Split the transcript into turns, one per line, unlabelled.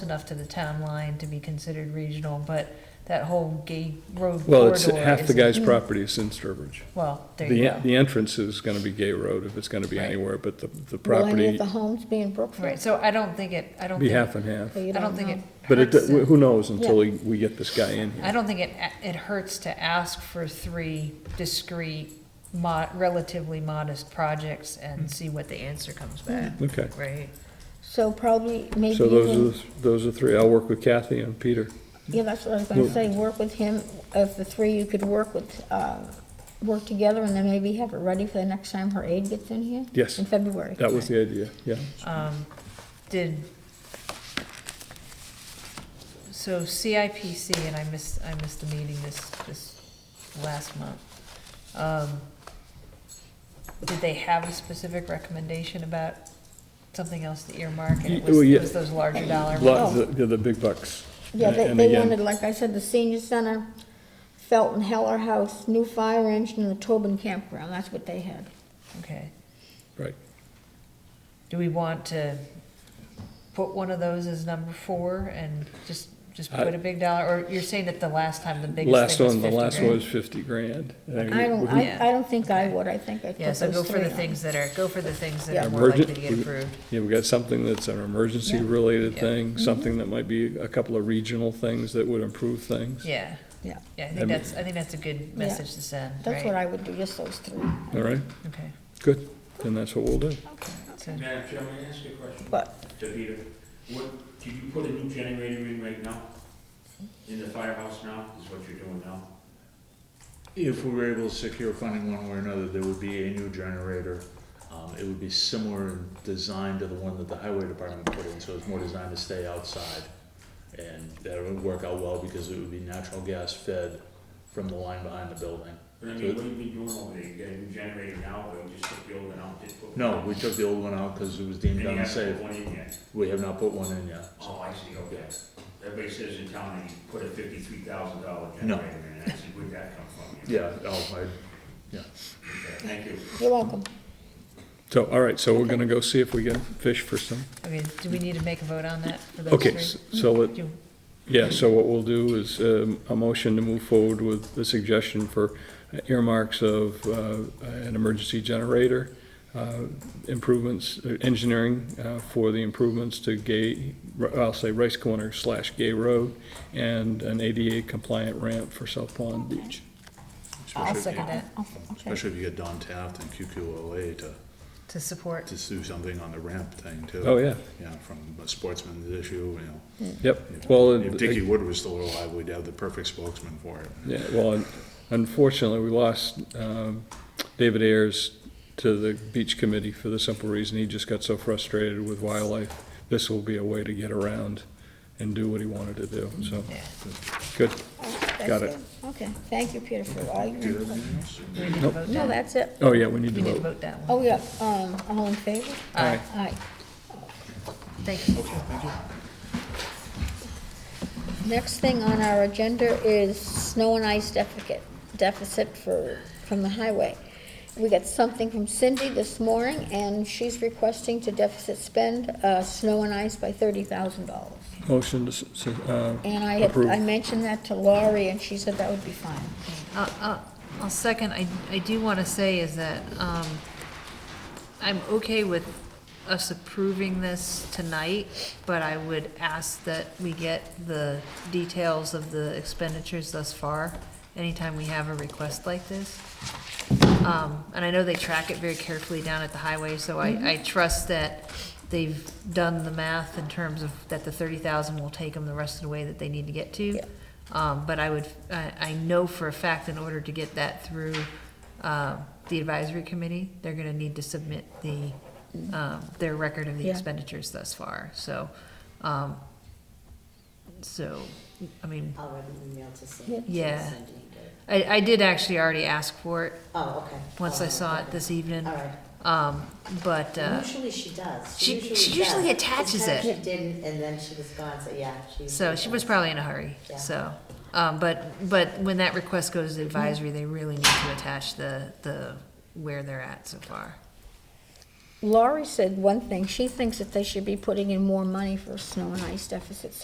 enough to the town line to be considered regional, but that whole gay road
Well, it's
corridor
half the
is-
guy's property is in Sturbridge.
Well, there you
The,
go.
the entrance is gonna be Gay Road if it's gonna be
Right.
anywhere, but the, the
Will any of
property
the homes be in
Right,
Brookfield?
so I don't think it, I don't
be
think,
half
I
and half.
You
don't think it
know.
But it,
hurts to-
who knows until we, we get this guy in
I
here.
don't think it, it hurts to ask for three discrete, mo- relatively modest projects
Hmm.
and see what the answer comes back,
Okay,
right?
So probably, maybe
so those are,
even,
the- those are three. I'll work with Kathy and Peter.
yeah, that's what I was gonna
Well-
say, work with him, of the three, you could work with, uh, work together, and then maybe have it ready for the next time her aide gets in here?
Yes.
In February?
That was the idea, yeah.
Um, Did, so CIPC, and I missed, I missed the meeting this, this last month. Um, Did they have a specific recommendation about something else to earmark? And it
Y- well,
was,
yeah.
it was those larger dollar
Lot-
ones?
the- the, the big bucks.
Oh. Yeah,
And-
they,
and
they
again,
wanted, like I said, the senior center, Felton Heller House, new fire engine, and the Tobin campground, that's what they had.
Oh, Okay.
Right.
Do we want to put one of those as number four and just, just
I-
put a big dollar? Or you're saying that the last time the biggest
Last
thing was
one, the
50
last
grand?
one was fifty grand. And
I don't, I,
Yeah.
I don't think I would, I think I'd put
Yeah,
those
so go for
three
the
on.
things that are, go for the things that
Yeah.
are more likely to
Emergent-
get approved.
Yeah, we got something that's an emergency-related
Yeah.
Mm-hmm.
thing, something that might be a couple of regional things that would improve things.
Yeah,
Yeah,
yeah, I
I mean-
think that's, I think that's a good message to send, right?
that's what I would do, just those three.
All right,
Okay,
good, then that's what we'll do.
so,
Madam Chair, may I ask you a question?
But,
To Peter, what, did you put a new generator in right now? In the firehouse now, is what you're doing now?
If we were able to secure funding one way or another, there would be a new generator. Um, it would be similar in design to the one that the highway department put in, so it's more designed to stay outside. And that would work out well because it would be natural gas fed from the line behind the building.
But I mean, what have you been doing over there? You got a new generator now, or you just took the old one out? didn't put-
No, we took the old one out because it was
And
deemed
you haven't
unsafe.
put one in yet?
We have not put one in yet.
Oh, I see, okay. Everybody says in town that you put a fifty-three thousand dollar
No.
generator in, I see where'd that come from?
Yeah, oh, I,
Okay, Thank you.
you're welcome.
So, all right, so we're gonna go see if we can fish for some,
okay, do we need to make a vote on that for those
okay,
three?
s- so, let-
Do-
yeah, so what we'll do is, um, a motion to move forward with the suggestion for uh, earmarks of, uh, an emergency generator, uh, improvements, uh, engineering, uh, for the improvements to Gay, I'll say Rice Corner slash Gay Road, and an ADA compliant ramp for South Pond Beach.
I'll second that,
Okay.
especially if you get Don Taft and QQOA to,
to support,
to do something on the ramp thing too.
Oh, yeah,
Yeah, from a sportsman's issue, you know.
yep, well. it-
If Dickie Wood was still alive, we'd have the perfect spokesman for it.
Yeah, well, un- unfortunately, we lost um, David Ayers to the beach committee for the simple reason he just got so frustrated with wildlife. This will be a way to get around and do what he wanted to do, so,
yeah.
good.
That's
Got it.
Okay, thank you, Peter, for all your
Do you have
input.
anything else?
Do we need to
Nope.
vote
No,
that?
that's it.
Oh, yeah, we need
We need
to
to
vote.
vote that one.
Oh, yeah, um, all in favor?
Aye.
Aye.
Thank you.
Next thing on our agenda is snow and ice deficit, deficit for, from the highway. We got something from Cindy this morning, and she's requesting to deficit spend, uh, snow and ice by thirty thousand dollars.
Motion to, s- s- uh,
And I had,
Approved.
I mentioned that to Laurie, and she said that would be fine.
Uh, uh, I'll second, I, I do want to say is that, um, I'm okay with us approving this tonight, but I would ask that we get the details of the expenditures thus far, anytime we have a request like this. Um, and I know they track it very carefully down at the highway, so
Mm-hmm.
I, I trust that they've done the math in terms of that the thirty thousand will take them the rest of the way that they need to get to.
Yeah.
Um, but I would, I, I know for a fact in order to get that through, um the advisory committee, they're gonna need to submit the, um, their record of the
Mm-hmm. Yeah.
expenditures thus far, so, um, so, I mean,
I'll write an email to
Yeah.
Cindy.
Yeah.
Cindy and get it.
I, I did actually already ask for it
Oh, okay.
once I
Oh,
saw it
okay.
this evening,
All right.
um, but, uh,
Usually she does.
she- she usually
does.
attaches
This time
it.
She didn't, and then she was gone, so yeah, she.
so
usually
she was
does.
probably in a hurry,
Yeah.
so. Um, but, but when that request goes to advisory, they really need to attach the, the, where they're at so far.
Laurie said one thing, she thinks that they should be putting in more money for snow and ice deficits.